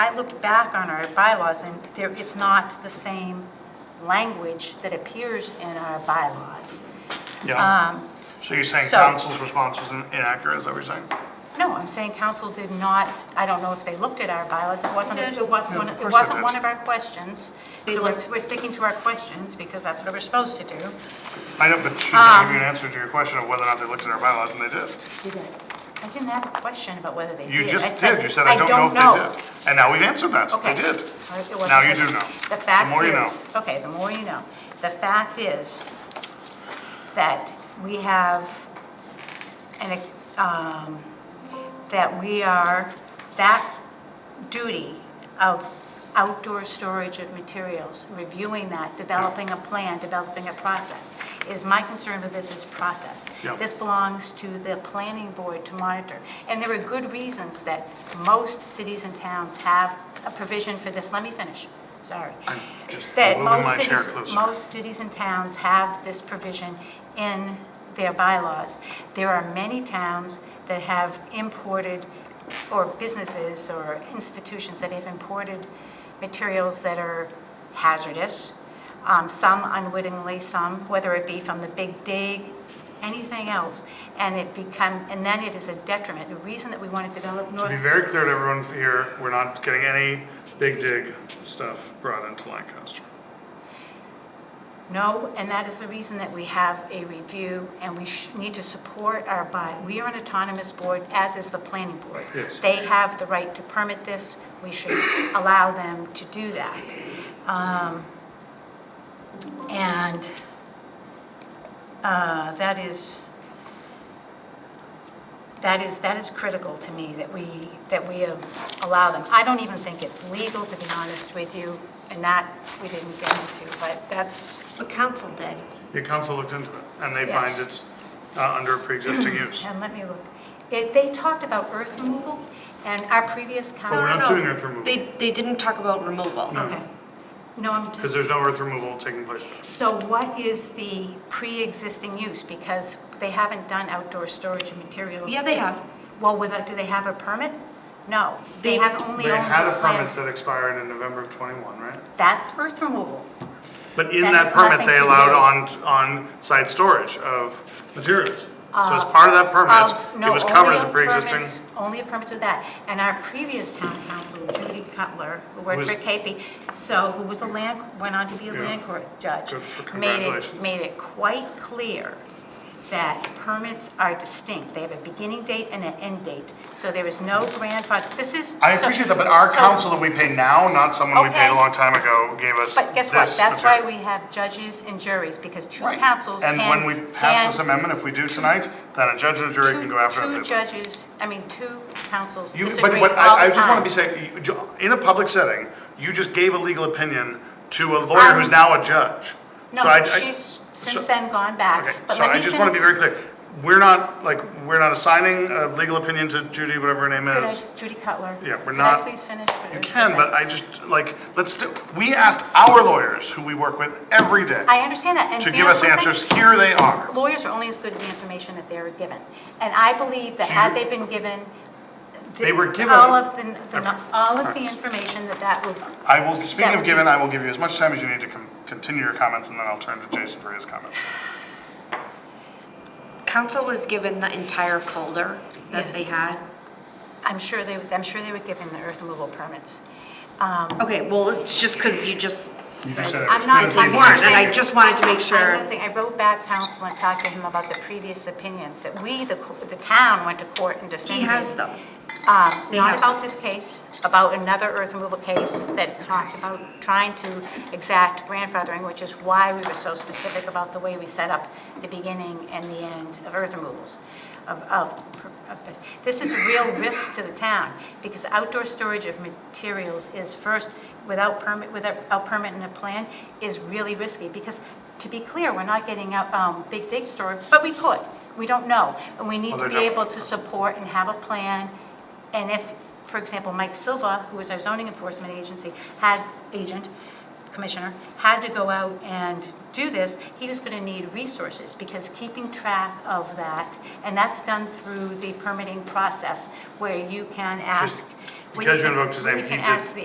looked back on our bylaws, and there, it's not the same language that appears in our bylaws. Yeah. So you're saying Um, so- council's response was in- inaccurate, is that what you're saying? No, I'm saying council did not, I don't know if they looked at our bylaws, it wasn't, They did. it wasn't, Yeah, one- of it course they wasn't did. one of our questions. They So we're, looked- we're sticking to our questions, because that's what we're supposed to do. I know, but she's Um, gonna give you an answer to your question of whether or not they looked at our bylaws, and they did. I didn't have a question about whether they did. You I just did, you said, I don't know if they did. And now we've answered that, Okay. they did. All right, it wasn't Now you good. do know. The fact more you is, okay, the more you know. The fact is that we have, an um, that we are, that duty of outdoor storage of materials, reviewing that, developing a plan, developing a process, is my concern with this is process. Yeah. This belongs to the planning board to monitor. And there are good reasons that most cities and towns have a provision for this. Let me finish, sorry. I'm just That moving most my chair cities- closer. Most cities and towns have this provision in their bylaws. There are many towns that have imported, or businesses or institutions that have imported materials that are hazardous, um, some unwittingly, some, whether it be from the big dig, anything else, and it become, and then it is a detriment. The reason that we want to develop To be North, very clear to everyone here, we're not getting any big dig stuff brought into Lancaster. no, and that is the reason that we have a review, and we sh- need to support our by, we are an autonomous board, as is the planning board. Yes. They have the right to permit this, we should allow them to do that. Um, And uh, that is, that is, that is critical to me, that we, that we uh, allow them. I don't even think it's legal, to be honest with you, and that we didn't get into, but that's, But council did. Your council looked into it, and they find Yes. it's uh, under pre-existing use. and let me look. It- They talked about earth removal, and our previous council... But Oh, we're not no. doing earth removal, They, they didn't talk about removal. Okay. No, I'm, because there's no earth removal taking place there. so what is the pre-existing use? Because they haven't done outdoor storage of materials. Yeah, they have. Well, without, do they have a permit? No, they They- have only They owned had a this permit land. that expired in November of '21, right? That's earth removal. But in That that has permit, nothing they to allowed do- on, on-site storage of materials. So as part of that Uh, Of- permit, no, it was covered only as a of pre-existing. permits- Only a permit to that. And our previous town council, Judy Cutler, who worked for Was- KP, so, who was a land, went on to be a Yeah. land court judge. Good for- made it- congratulations. Made it quite clear that permits are distinct. They have a beginning date and an end date. So there is no grandfather, this is. I so- appreciate that, but our so- council that we pay now, not someone we paid a Okay. long time ago, gave us But guess what? this That's why material. we have judges and juries, because two Right. councils can. And when we pass can- this amendment, if we do tonight, then a judge and a jury two- can go after Two it. judges, I mean, two councils You- disagree all the But, but I, I just time. want to be saying, you- ju- in a public setting, you just gave a legal opinion to a lawyer who's now a judge. Um, No, So I- but I- she's so- since then gone Okay, back. But so let I me just want to be finish- very clear, we're not, like, we're not assigning a legal opinion to Judy, whatever her name Could I- is. Judy Cutler. Yeah, we're Could not- I please finish? what I You was can, gonna but say? I just, like, let's, do- we asked our lawyers, who we work with every day, I understand that, and to so you give know us something? answers, here they are. Lawyers are only as good as the information that they are given. And I believe that So had you- they been given. the- They were given- All of the, the- Okay. all of the information that that would. I will, speaking That of would given, I will give you as much time as you need to con- continue your comments, and then I'll turn to Jason for his comments. Council was given the entire folder that they Yes. had. I'm sure they, would- I'm sure they were given the earth removal permits. Okay, well, it's just because you just said said it that I'm not, Because they we I'm not weren't, weren't, and I saying- just wanted to make I'm sure. not saying, I wrote back counsel and talked to him about the previous opinions, that we, the, co- the town went to court and defended. He has them. Um, They Not have- about this case, about another earth removal case that talked about trying to exact grandfathering, which is why we were so specific about the way we set up the beginning and the end of earth removals, of, of, of this. This is a real risk to the town, because outdoor storage of materials is first, without permit, without permit and a plan, is really risky, because, to be clear, we're not getting out, um, big dig storage, but we could, we don't know, and we need Well, to they be don't. able to support and have a plan. And if, for example, Mike Silva, who is our zoning enforcement agency, had, agent, commissioner, had to go out and do this, he was gonna need resources, because keeping track of that, and that's done through the permitting process, where you can ask. where you because you can- invoked his where name, you he can did- ask the